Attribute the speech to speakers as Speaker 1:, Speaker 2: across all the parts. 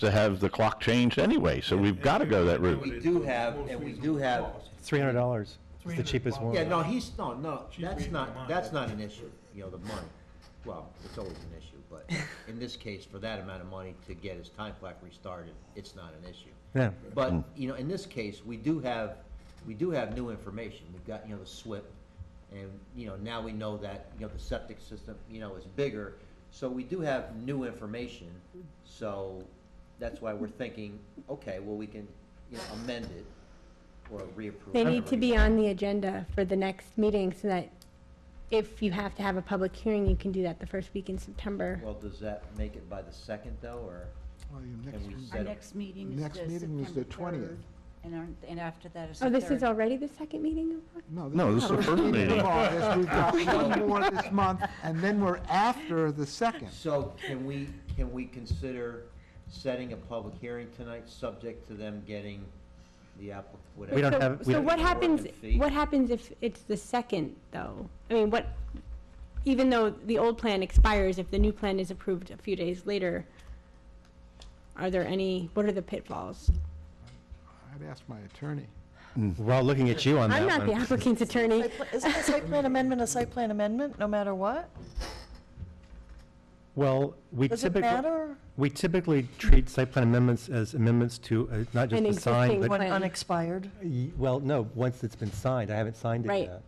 Speaker 1: to have the clock changed anyway, so we've got to go that route.
Speaker 2: We do have, and we do have,
Speaker 3: Three hundred dollars is the cheapest one.
Speaker 2: yeah, no, he's, no, no, that's
Speaker 4: reading my
Speaker 2: not,
Speaker 4: mind.
Speaker 2: that's not an issue, you know, the money. Well, it's always an issue, but in this case, for that amount of money to get his time clock restarted, it's not an issue.
Speaker 3: Yeah.
Speaker 2: But, you know, in this case, we do have, we do have new information. We've got, you know, the SWIP, and, you know, now we know that, you know, the septic system, you know, is bigger. So we do have new information, so that's why we're thinking, okay, well, we can, you know, amend it or reapprove.
Speaker 5: They need to be on the agenda for the next meeting so that if you have to have a public hearing, you can do that the first week in September.
Speaker 2: Well, does that make it by the second, though, or
Speaker 6: Well, your next
Speaker 2: can we
Speaker 6: one-
Speaker 2: set
Speaker 7: Our
Speaker 2: it?
Speaker 7: next meeting is the
Speaker 6: Next
Speaker 7: September 3rd.
Speaker 6: meeting is the 20th.
Speaker 7: And, our- and after that is the
Speaker 5: Oh,
Speaker 7: 3rd.
Speaker 5: this is already the second meeting? of March?
Speaker 1: No, this is the first
Speaker 6: meeting
Speaker 1: meeting.
Speaker 6: of August. We've got one more this month, and then we're after the second.
Speaker 2: So can we, can we consider setting a public hearing tonight, subject to them getting the applic, whatever?
Speaker 3: We don't
Speaker 5: So-
Speaker 3: have- we
Speaker 5: So
Speaker 3: don't-
Speaker 5: what happens,
Speaker 2: Working fee.
Speaker 5: what happens if it's the second, though? I mean, what, even though the old plan expires, if the new plan is approved a few days later, are there any, what are the pitfalls?
Speaker 6: I'd ask my attorney.
Speaker 3: Mm. We're all looking at you on that
Speaker 5: I'm
Speaker 3: one.
Speaker 5: not the applicant's attorney.
Speaker 8: Site pla- Isn't a site plan amendment a site plan amendment, no matter what?
Speaker 3: Well, we
Speaker 8: Does it
Speaker 3: typically.
Speaker 8: matter?
Speaker 3: We typically treat site plan amendments as amendments to, uh, not just
Speaker 5: An
Speaker 3: the sign, but,
Speaker 5: existing one.
Speaker 8: When
Speaker 5: Plan.
Speaker 8: unexpired?
Speaker 3: Y- well, no, once it's been signed, I haven't signed it
Speaker 5: Right.
Speaker 3: yet.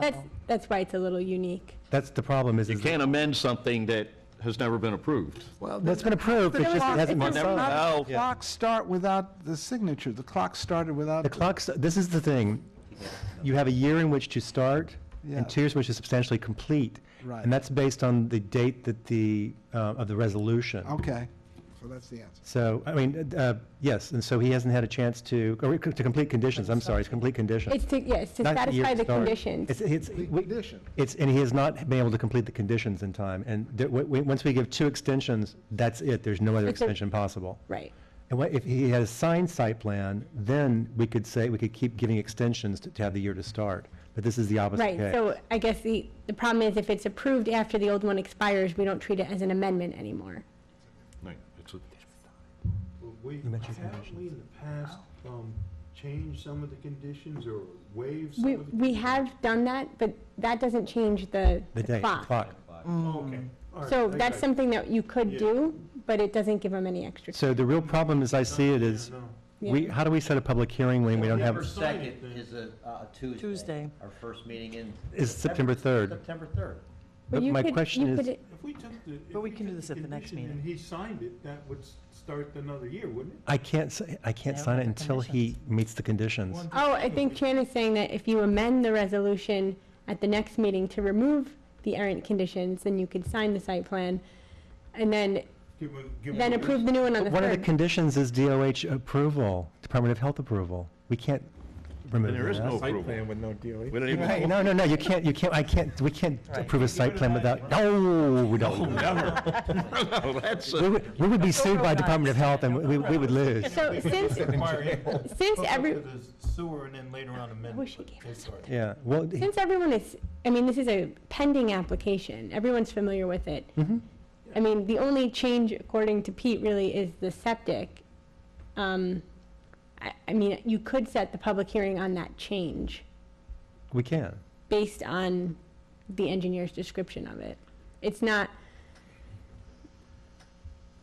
Speaker 5: That's, that's why it's a little unique.
Speaker 3: That's the problem is.
Speaker 9: You
Speaker 3: is that-
Speaker 9: can't amend something that has never been approved.
Speaker 3: That's been approved, it
Speaker 8: But it
Speaker 3: just
Speaker 8: was-
Speaker 3: it hasn't
Speaker 8: it
Speaker 3: been
Speaker 8: was
Speaker 3: signed.
Speaker 8: not-
Speaker 9: Oh,
Speaker 3: Yeah.
Speaker 6: Clocks start without the signature. The clock started without.
Speaker 3: The clock's, this is the thing, you have a year in which to start,
Speaker 6: Yeah.
Speaker 3: and two years which is substantially complete.
Speaker 6: Right.
Speaker 3: And that's based on the date that the, uh, of the resolution.
Speaker 6: Okay, so that's the answer.
Speaker 3: So, I mean, uh, yes, and so he hasn't had a chance to, or to complete conditions, I'm sorry, it's complete conditions.
Speaker 5: It's to, yes, to
Speaker 3: Not the year
Speaker 5: satisfy the
Speaker 3: start.
Speaker 5: conditions.
Speaker 3: It's, it's,
Speaker 6: The
Speaker 3: we-
Speaker 6: condition.
Speaker 3: it's, and he has not been able to complete the conditions in time. And there, w- w- once we give two extensions, that's it, there's no other
Speaker 5: It's a-
Speaker 3: extension possible.
Speaker 5: Right.
Speaker 3: And what, if he had a signed site plan, then we could say, we could keep giving extensions to, to have the year to start. But this is the opposite
Speaker 5: Right,
Speaker 3: case.
Speaker 5: so I guess the, the problem is if it's approved after the old one expires, we don't treat it as an amendment anymore.
Speaker 9: Right, it's a-
Speaker 4: Well, We,
Speaker 3: You mentioned
Speaker 4: haven't we in the past, um, changed some of the conditions or waived some
Speaker 5: We,
Speaker 4: of the?
Speaker 5: we have done that, but that doesn't change the
Speaker 3: The
Speaker 5: the
Speaker 3: date,
Speaker 5: clock.
Speaker 3: clock.
Speaker 4: Okay. all right,
Speaker 5: So
Speaker 4: I
Speaker 5: that's
Speaker 4: got you.
Speaker 5: something that you could
Speaker 4: Yeah.
Speaker 5: do, but it doesn't give them any extra.
Speaker 3: So the real problem, as I see it, is,
Speaker 4: No, no.
Speaker 3: we,
Speaker 5: Yeah.
Speaker 3: how do we set a public hearing when we don't
Speaker 2: September
Speaker 3: have,
Speaker 2: second is a, uh, a Tuesday.
Speaker 8: Tuesday.
Speaker 2: Our first meeting in.
Speaker 3: Is September 3rd.
Speaker 2: September third.
Speaker 3: but
Speaker 5: you
Speaker 3: my
Speaker 5: could-
Speaker 3: question
Speaker 5: you
Speaker 3: is.
Speaker 5: could-
Speaker 4: If we took the. if
Speaker 8: But we can
Speaker 4: took
Speaker 8: do this at the next
Speaker 4: condition
Speaker 8: meeting.
Speaker 4: And he signed it, that would s- start another year, wouldn't it?
Speaker 3: I can't, si- I can't
Speaker 8: Yeah,
Speaker 3: sign it
Speaker 8: the
Speaker 3: until he meets the conditions.
Speaker 5: Oh, I think Chan is saying that if you amend the resolution at the next meeting to remove the errant conditions, then you could sign the site plan, and then,
Speaker 4: Give him- give him
Speaker 5: then
Speaker 4: a-
Speaker 5: approve the new one on the
Speaker 3: One of the
Speaker 5: third.
Speaker 3: conditions is DOH approval, Department of Health approval. We can't remove
Speaker 9: And there is
Speaker 3: that.
Speaker 9: no approval.
Speaker 6: with no E. DOE.
Speaker 9: We don't even
Speaker 3: Right, no, no, no, you can't, you can't, I can't, we can't approve a site plan without, no, we don't.
Speaker 9: Never. No, that's,
Speaker 3: We
Speaker 9: a-
Speaker 3: would, we would be sued by Department of Health and we, we would lose.
Speaker 5: So since, since every,
Speaker 4: Sewer and then later on amend.
Speaker 5: wish it gave us
Speaker 3: Yeah, well, he-
Speaker 5: Since everyone is, I mean, this is a pending application, everyone's familiar with it.
Speaker 3: mm-hmm,
Speaker 5: I mean, the only change, according to Pete, really is the septic. Um, I, I mean, you could set the public hearing on that change
Speaker 3: we can.
Speaker 5: based on the engineer's description of it. It's not,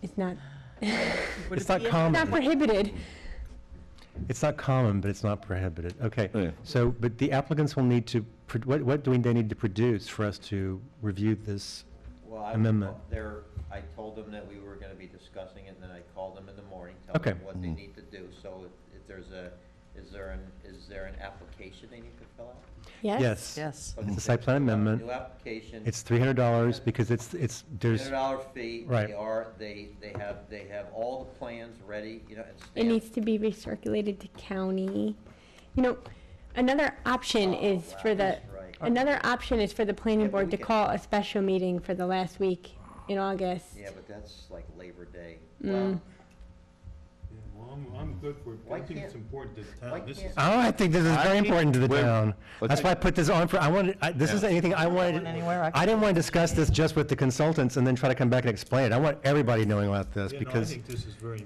Speaker 5: it's not,
Speaker 3: It's not
Speaker 5: not
Speaker 3: common,
Speaker 5: prohibited.
Speaker 3: it's not common, but it's not prohibited.
Speaker 9: Yeah.
Speaker 3: Okay, so, but the applicants will need to, pro- what, what do they need to produce for us to review this?
Speaker 2: Well, I,
Speaker 3: Amendment.
Speaker 2: there, I told them that we were gonna be discussing it, and then I called them in the morning, tell
Speaker 3: Okay.
Speaker 2: them what they need to do, so if, if there's a, is there an, is there an application they need to fill out?
Speaker 5: Yes?
Speaker 3: Yes.
Speaker 8: Yes.
Speaker 2: Okay,
Speaker 3: a site plan
Speaker 2: fill out a
Speaker 3: amendment.
Speaker 2: New application.
Speaker 3: It's three hundred dollars because it's, it's, there's,
Speaker 2: Hundred dollar fee.
Speaker 3: Right.
Speaker 2: They are, they, they have, they have all the plans ready, you know, and
Speaker 5: It
Speaker 2: stamped.
Speaker 5: needs to be recirculated to county. You know, another option
Speaker 2: Oh,
Speaker 5: is
Speaker 2: wow,
Speaker 5: for the,
Speaker 2: that's right.
Speaker 5: another option is for the planning
Speaker 2: Yeah, but
Speaker 5: board
Speaker 2: we
Speaker 5: to
Speaker 2: can-
Speaker 5: call a special meeting for the last week in August.
Speaker 2: Yeah, but that's like Labor Day.
Speaker 5: Mm.
Speaker 4: Yeah, Well, I'm, I'm good for it, but
Speaker 2: Why
Speaker 4: I think it's
Speaker 2: can't-
Speaker 4: important to the
Speaker 2: why
Speaker 4: town, this
Speaker 2: can't-
Speaker 4: is.
Speaker 3: oh, I think this is
Speaker 9: I-
Speaker 3: very important to the
Speaker 9: Wait,
Speaker 3: town.
Speaker 9: let's-
Speaker 3: That's why I put this on for, I wanted, I, this
Speaker 9: Yeah.
Speaker 3: isn't anything I wanted,
Speaker 8: going anywhere. I
Speaker 3: I didn't want to discuss this just with the consultants and then try to come back and explain it. I want everybody knowing about this
Speaker 4: Yeah, no, I
Speaker 3: because
Speaker 4: think this is very